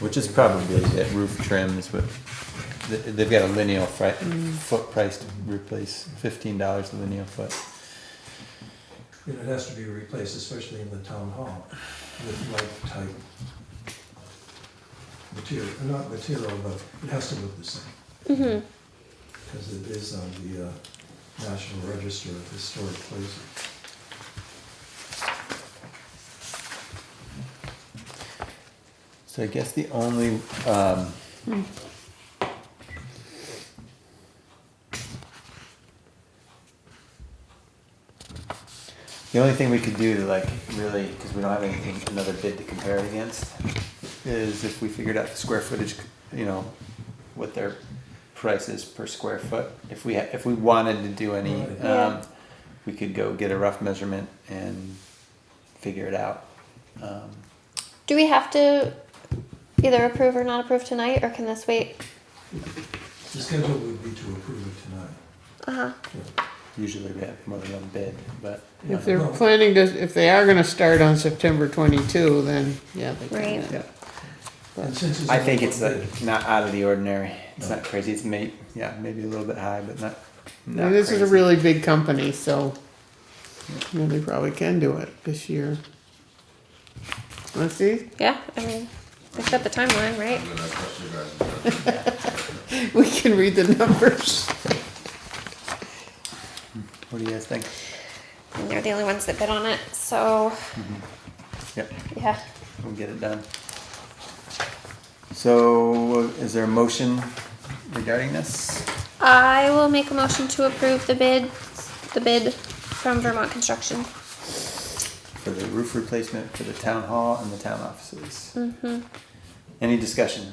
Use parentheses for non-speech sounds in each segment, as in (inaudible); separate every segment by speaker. Speaker 1: Which is probably that roof trim is what, th- they've got a lineal fri- foot price to replace, fifteen dollars a lineal foot.
Speaker 2: You know, It has to be replaced, especially in the town hall, with light type material, uh, not material, but it has to look the same. Because it is on the uh, National Register of Historic Places.
Speaker 1: So I guess the only, um, the only thing we could do to like really, because we don't have anything, another bid to compare it against, is if we figured out the square footage, you know, what their price is per square foot. If we, ha- if we wanted to do any,
Speaker 2: Right.
Speaker 1: um, we could go get a rough measurement and figure it out. Um,
Speaker 3: Do we have to either approve or not approve tonight, or can this wait?
Speaker 2: The schedule would be to approve it tonight.
Speaker 3: Uh huh.
Speaker 1: Usually we have more than one bid, but
Speaker 4: If they're planning to, if they are gonna start on September twenty-two, then, yeah, they can,
Speaker 3: Right.
Speaker 4: yeah.
Speaker 2: And since it's
Speaker 1: I think
Speaker 2: only
Speaker 1: it's uh,
Speaker 2: one
Speaker 1: like
Speaker 2: bid,
Speaker 1: not out of the ordinary. It's
Speaker 2: No.
Speaker 1: not crazy. It's may yeah, maybe a little bit high, but not. not
Speaker 4: And this is a
Speaker 1: crazy.
Speaker 4: really big company, so, you know, they probably can do it this year. Let's see, (laughs)
Speaker 3: Yeah, I mean, we set the timeline, right?
Speaker 5: And then I trust you guys.
Speaker 4: we can read the numbers.
Speaker 1: What do you guys think?
Speaker 3: And they're the only ones that bid on it, so
Speaker 1: Yep,
Speaker 3: yeah.
Speaker 1: we'll get it done. So, is there a motion regarding this?
Speaker 3: I will make a motion to approve the bid, the bid from Vermont Construction.
Speaker 1: for the roof replacement for the town hall and the town offices.
Speaker 4: Mm-hmm.
Speaker 1: Any discussion?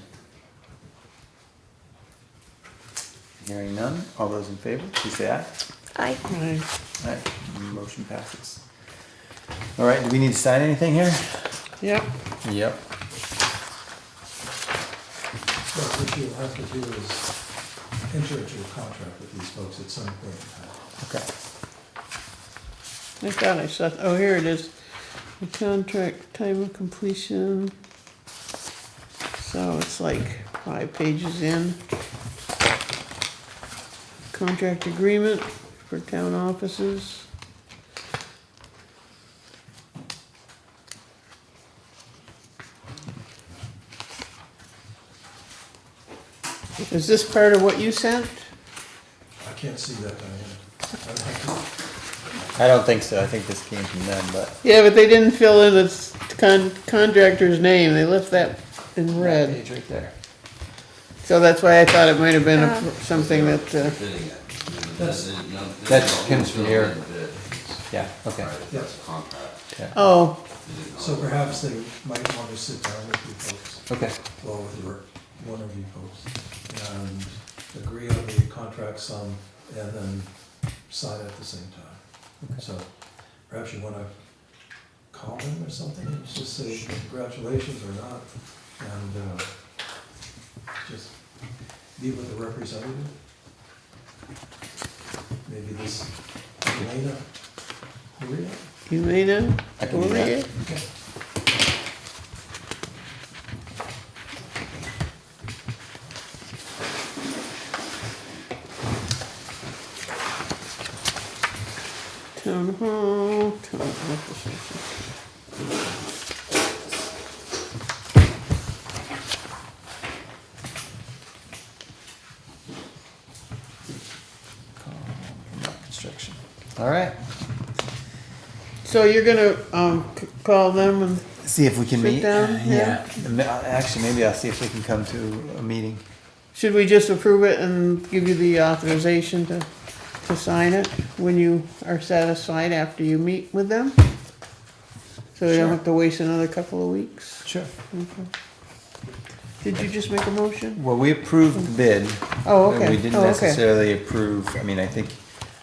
Speaker 1: Hearing none, all those in favor, please say aye.
Speaker 3: I
Speaker 4: Right.
Speaker 1: Alright, motion passes. Alright, do we need to sign anything here?
Speaker 4: Yep,
Speaker 1: Yep.
Speaker 2: but What you'll have to do is enter into a contract with these folks at some point in time.
Speaker 1: Okay.
Speaker 4: I thought I saw, oh, here it is. The contract, time of completion. So it's like five pages in. Contract agreement for town offices. Is this part of what you sent?
Speaker 2: I can't see that, Diane. I'd have
Speaker 1: I don't think so, I think this came from them, but
Speaker 4: Yeah, but they didn't fill in the s- con- contractor's name, they left that in
Speaker 1: that
Speaker 4: red.
Speaker 1: page right there.
Speaker 4: So that's why I thought it might have been a-
Speaker 3: Oh.
Speaker 4: something that, uh,
Speaker 5: Bidding it.
Speaker 2: That's-
Speaker 1: That's Kim's from here. Yeah, okay.
Speaker 5: Right, that's a contract.
Speaker 4: oh,
Speaker 5: You didn't
Speaker 2: to-
Speaker 5: know
Speaker 2: So
Speaker 5: that.
Speaker 2: perhaps they might want to sit down with you folks.
Speaker 1: Okay.
Speaker 2: well with your, one of you folks, and agree on the contract sum, and then sign at the same time. So perhaps you wanna call them or something, and just say congratulations or not, and, uh, just be with the representative. Maybe this Elena Correa?
Speaker 4: you may know.
Speaker 1: I can do that.
Speaker 2: Okay.
Speaker 4: Town hall, town offices.
Speaker 1: Construction. Alright,
Speaker 4: So you're gonna, um, c- call them and,
Speaker 1: see if we can
Speaker 4: Sit
Speaker 1: meet.
Speaker 4: down, yeah.
Speaker 1: Ma- Actually, maybe I'll see if we can come to a meeting.
Speaker 4: should we just approve it and give you the authorization to, to sign it when you are satisfied after you meet with them? So you
Speaker 1: Sure.
Speaker 4: don't have to waste another couple of weeks?
Speaker 1: Sure.
Speaker 4: Did you just make a motion?
Speaker 1: Well, we approved the bid.
Speaker 4: Oh,
Speaker 1: and
Speaker 4: okay.
Speaker 1: We didn't
Speaker 4: Oh, okay.
Speaker 1: necessarily approve, I mean, I think,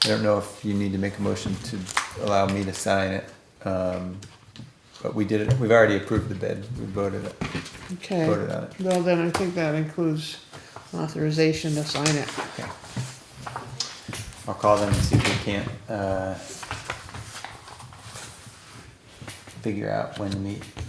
Speaker 1: I don't know if you need to make a motion to allow me to sign it. Um, But we did it, we've already approved the bid, we voted it,
Speaker 4: Okay.
Speaker 1: voted on it.
Speaker 4: Well, then I think that includes authorization to sign it.
Speaker 1: Okay. I'll call them and see if we can't, uh, figure out when to meet.